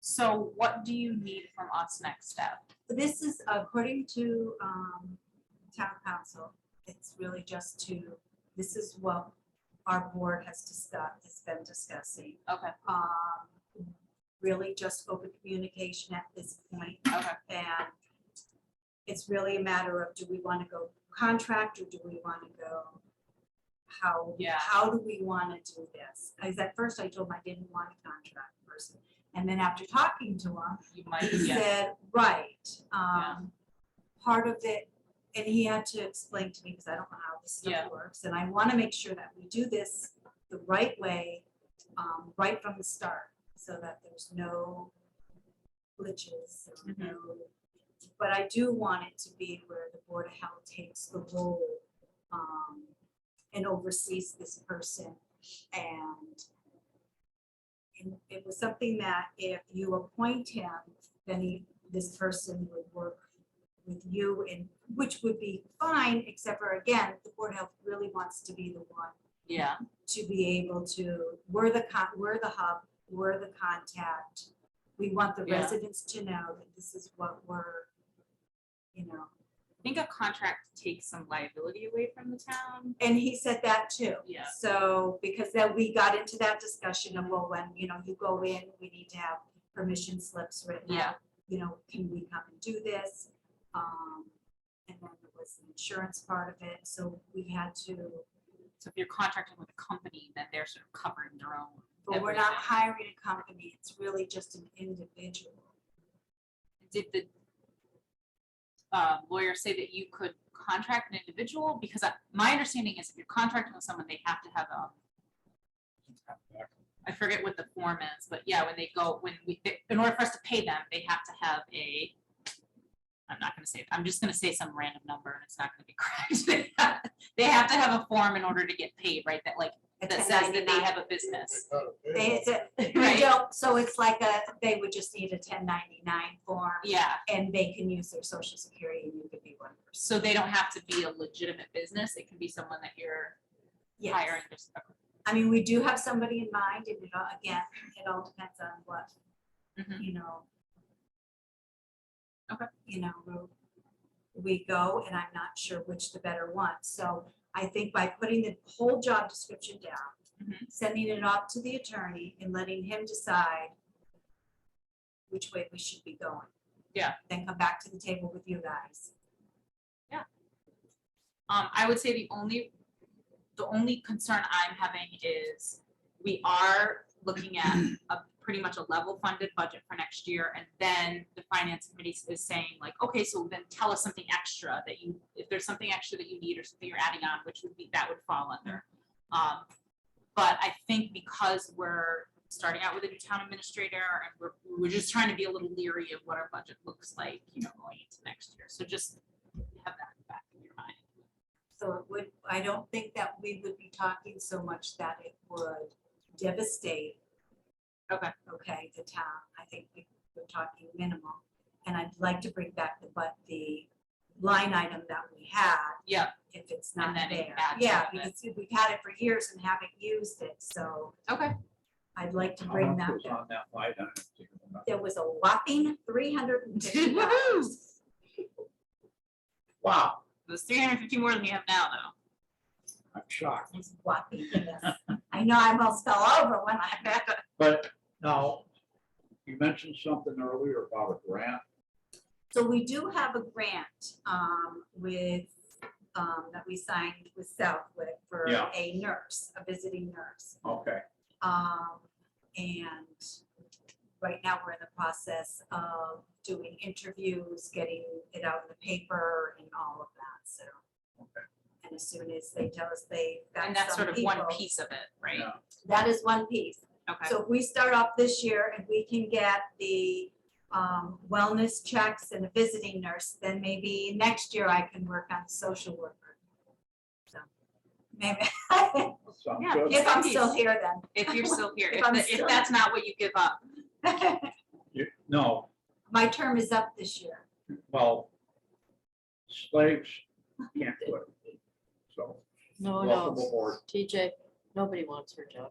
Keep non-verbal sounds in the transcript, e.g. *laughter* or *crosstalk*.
So what do you need from us next step? This is according to um, town council, it's really just to, this is what our board has discussed, has been discussing. Okay, Um, Really just open communication at this point. okay, And it's really a matter of, do we want to go contract or do we want to go? How, Yeah. how do we want to do this? Because at first I told him I didn't want a contract person. And then after talking to him, you might, he yeah, said, right, Yeah. um, part of it, and he had to explain to me, because I don't know how this Yeah. stuff works, and I want to make sure that we do this the right way, um, right from the start, so that there's no glitches, or Mhm. no. But I do want it to be where the Board of Health takes the role, um, and oversees this person, and and it was something that if you appoint him, then he, this person would work with you and, which would be fine, except for again, the Board of Health really wants to be the one yeah, to be able to, we're the con, we're the hub, we're the contact. We want the Yeah. residents to know that this is what we're, you know, I think a contract takes some liability away from the town. and he said that too. Yeah. So, because then we got into that discussion of, well, when, you know, you go in, we need to have permission slips written out. Yeah. You know, can we come and do this? Um, and then there was the insurance part of it, so we had to, So if you're contracting with a company, then they're sort of covering their own. but we're not everything. hiring a company, it's really just an individual. Did the uh, lawyer say that you could contract an individual? Because I- my understanding is if you're contracting with someone, they have to have a, I forget what the form is, but yeah, when they go, when we, in order for us to pay them, they have to have a, I'm not gonna say, it. I'm just gonna say some random number and it's not gonna be *laughs* correct. They have- They have to have a form in order to get paid, right? That like, a that says that they 1099. have a business. They, it's *laughs* a- Right. *laughs* you don't, so it's like a, they would just need a ten ninety-nine form, Yeah, and they can use their social security, and you could be one person. so they don't have to be a legitimate business. It can be someone that you're Yes. hiring. just- I mean, we do have somebody in mind, and it all, again, it all depends on what, Mhm. you know. Okay. You know, we- we go, and I'm not sure which the better one, so I think by putting the whole job description down, Mhm. sending it off to the attorney and letting him decide which way we should be going. Yeah. Then come back to the table with you guys. Um, I would say the only, the only concern I'm having is we are looking at a pretty much a level funded budget for next year. And then the finance committee is saying like, okay, so then tell us something extra that you, if there's something extra that you need or something you're adding on, which would be, that would fall under. Um, but I think because we're starting out with a new town administrator and we're, we're just trying to be a little leery of what our budget looks like, you know, going into next year. So just have that in the back of your mind. So it would, I don't think that we would be talking so much that it would devastate. Okay. Okay, the town, I think we- we're talking minimal, and I'd like to bring back the, but the line item that we had, Yeah, if it's not then it there. adds to Yeah, it. because we've had it for years and haven't used it, so okay, I'd like to How bring much that was back. On that line item, do you remember? There was a whopping three hundred and *laughs* fifty dollars. Wow, it was three hundred fifty more than we have now, though. I'm shocked. It's whopping, yes. I know I almost fell over when I read it. But now, you mentioned something earlier about a grant. So we do have a grant um, with, um, that we signed with Southwick for Yeah. a nurse, a visiting nurse. Okay, Um, And right now, we're in the process of doing interviews, getting it out in the paper and all of that, so. Okay. And as soon as they tell us they. got And that's some sort of one people- piece of it, right? yeah, That is one piece. Okay, So if we start off this year and we can get the um, wellness checks and a visiting nurse, then maybe next year I can work on social worker. So Maybe, *laughs* that sounds Yeah. good. if I'm still here if you're still here, *laughs* If if, I'm the- if still- that's not what you give up, then. *laughs* You- No, My term is up this year. well, slaves can't do it. So, No, welcome no, aboard. TJ, nobody wants her job.